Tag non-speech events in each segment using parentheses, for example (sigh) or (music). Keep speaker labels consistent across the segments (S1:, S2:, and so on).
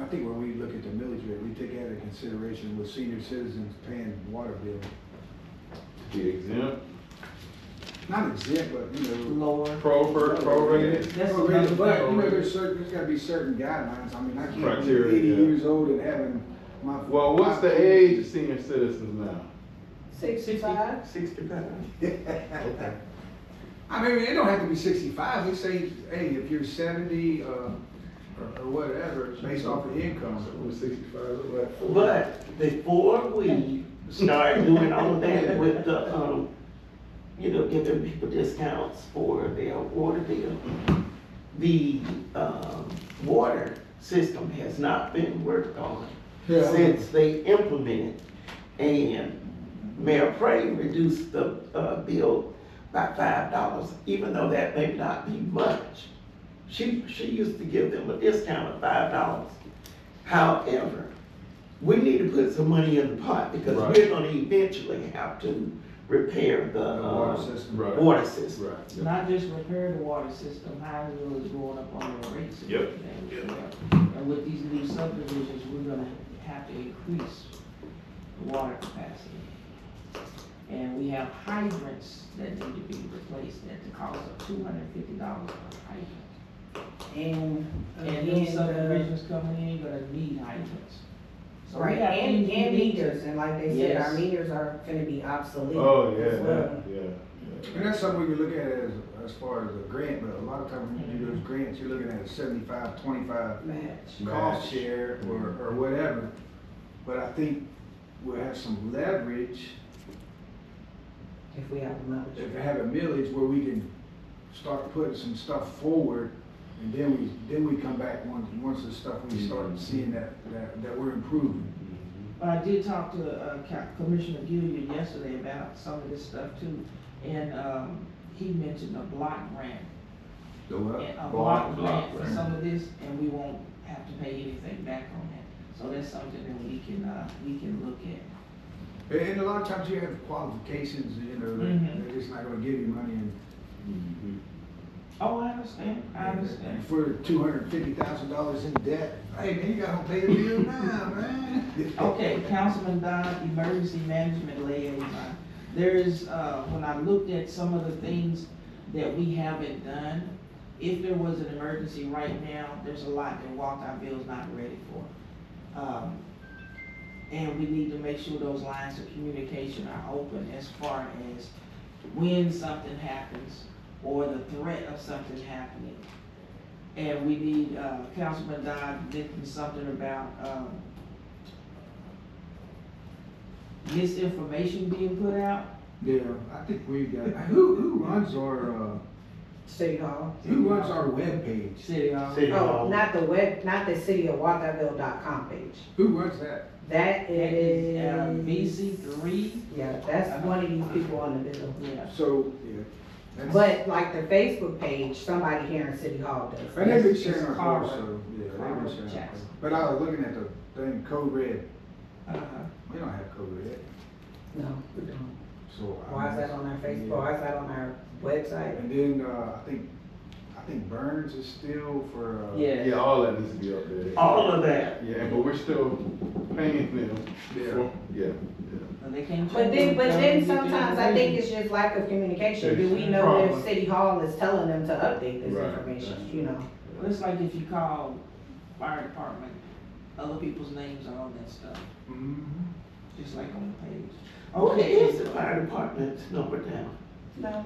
S1: I think when we look at the millage rate, we take out into consideration with senior citizens paying water bill.
S2: Be exempt,
S1: Not exempt, but, you know.
S3: lower.
S2: proper, prorated.
S3: That's
S1: But,
S3: another
S1: but, you know,
S3: thing.
S1: there's certain, there's gotta be certain guidelines. I mean, I can't be
S2: Criteria,
S1: eighty
S2: yeah.
S1: years old and having my.
S2: Well, what's the age
S1: (laughs)
S2: of senior citizens now?
S4: Sixty-five?
S3: Sixty-five.
S2: Okay.
S1: I mean, it don't have to be sixty-five, we say, hey, if you're seventy, uh, or, or whatever, based off of income.
S2: Over sixty-five, look like forty.
S4: But before we start doing all that with the, um, you know, giving people discounts for their water bill, the, um, water system has not been worked on since they implemented. And Mayor Prey reduced the, uh, bill by five dollars, even though that may not be much. She, she used to give them a discount of five dollars. However, we need to put some money in the pot because
S2: Right.
S4: we're gonna eventually have to repair the,
S1: The water
S4: uh,
S1: system.
S2: Right,
S4: water system.
S2: right.
S3: Not just repair the water system, Hinesville is going up on their rates. and
S2: Yep.
S3: everything. And with these new subdivisions, we're gonna have to increase the water capacity. And we have hydrants that need to be replaced at the cost of two hundred fifty dollars per hydrant.
S5: And,
S3: And new
S5: and, uh,
S3: subdivisions coming in, you're gonna need hydrants. So we
S5: right,
S3: got
S5: and,
S3: things we
S5: and
S3: need to-
S5: meters, and like they said, our
S3: Yes.
S5: meters are gonna be obsolete
S2: Oh,
S5: as well.
S2: yeah, yeah, yeah.
S1: And that's something we can look at as, as far as a grant, but a lot of times when you do those grants, you're looking at a seventy-five, twenty-five
S5: Match.
S1: cost share or, or whatever. But I think we'll have some leverage
S5: if we have a
S1: if we
S5: millage.
S1: have a millage where we can start putting some stuff forward. And then we, then we come back once, once the stuff we start seeing that, that, that we're improving.
S3: But I did talk to uh, Co- Commissioner Gilliard yesterday about some of this stuff too, and, um, he mentioned a block grant.
S1: The what?
S3: and A
S2: block
S3: block grant for
S2: grant.
S3: some of this, and we won't have to pay anything back on that. So that's something that we can, uh, we can look at.
S1: And, and a lot of times you have qualifications, you know,
S3: Mhm.
S1: they're just not gonna give you money and.
S2: Mhm.
S3: Oh, I understand, I understand.
S1: For two hundred and fifty thousand dollars in debt, hey, man, you gotta pay the bill now, (laughs) man.
S3: Okay, Councilman Dodd, emergency management liaison. There is, uh, when I looked at some of the things that we haven't done, if there was an emergency right now, there's a lot that Walkout Bill's not ready for. Um, and we need to make sure those lines of communication are open as far as when something happens or the threat of something happening. And we need, uh, Councilman Dodd mentioned something about, um, misinformation being put out.
S1: Yeah, I think we've got, who, who runs our, uh,
S5: City Hall.
S1: who runs our webpage?
S3: City Hall.
S2: City
S5: Oh,
S2: Hall.
S5: not the web, not the city of Walkerville.com page.
S1: Who runs that?
S5: That
S3: It is, uh,
S5: is.
S3: BC three,
S5: Yeah, that's one of these people on the bill.
S3: yeah.
S1: So, yeah. that's-
S5: But like the Facebook page, somebody here in City Hall does.
S1: And they've been
S3: it's-
S1: sharing
S3: it's
S1: our
S3: Carver.
S1: course, so, yeah, they've
S3: Carver
S1: been sharing. our
S3: Jackson.
S1: course. But I was looking at the thing, Code Red,
S3: Uh-huh.
S1: we don't have Code Red,
S5: No, we don't.
S1: so. I-
S5: Why is that on our Facebook? Why is that on our website?
S1: And then, uh, I think, I think Burns is still for, uh.
S2: Yeah, all that needs to be up there.
S4: All of that.
S2: Yeah, but we're still paying them.
S1: Yeah.
S2: for- Yeah,
S3: But they can't.
S5: But then, but then sometimes I think it's just lack of communication. Do we know
S2: Problem.
S5: if City Hall is telling them to update this
S2: Right.
S5: information, you know?
S3: Well, it's like if you call fire department, other people's names are on that stuff,
S1: Mhm.
S3: just like on the page.
S4: What is
S3: Okay,
S4: the fire department's number down?
S5: No.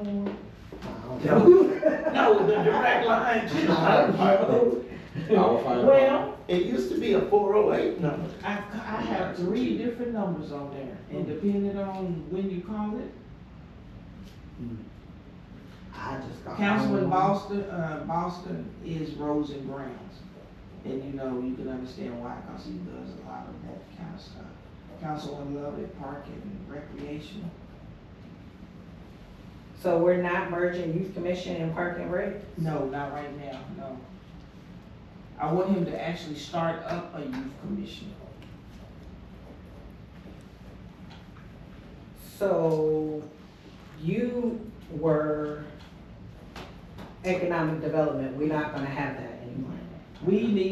S4: No, the direct line to the fire department. Well, it used to be a four oh eight number.
S3: I, I have three different numbers on there,
S5: Hmm.
S3: and depending on when you call it,
S5: (laughs) I just got.
S3: Councilman Boston, uh, Boston is Rose and Browns. And you know, you can understand why, cause he does a lot of that kind of stuff. Councilman Love at Park and Recreation.
S5: So we're not merging youth commission and park and rec?
S3: No, not right now, no. I want him to actually start up a youth commission.
S5: So you were economic development, we're not gonna have that anymore.
S3: We need